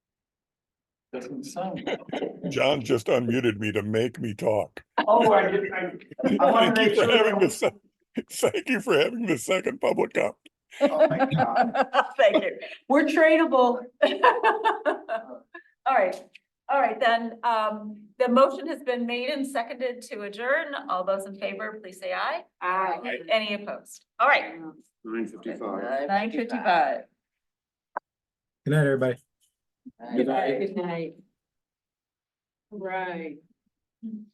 Doesn't sound. John just unmuted me to make me talk. Oh, I did, I, I wanna Thank make you for sure that- having the sec- Thank you for having the second public up. oh my God. Thank you. We're tradable. All right, all right, then, um, the motion has been made and seconded to adjourn. All those in favor, please say aye. Aye. Any opposed? All right. Nine fifty-five. Nine fifty-five. Good night, everybody. Good night. Good night. Right.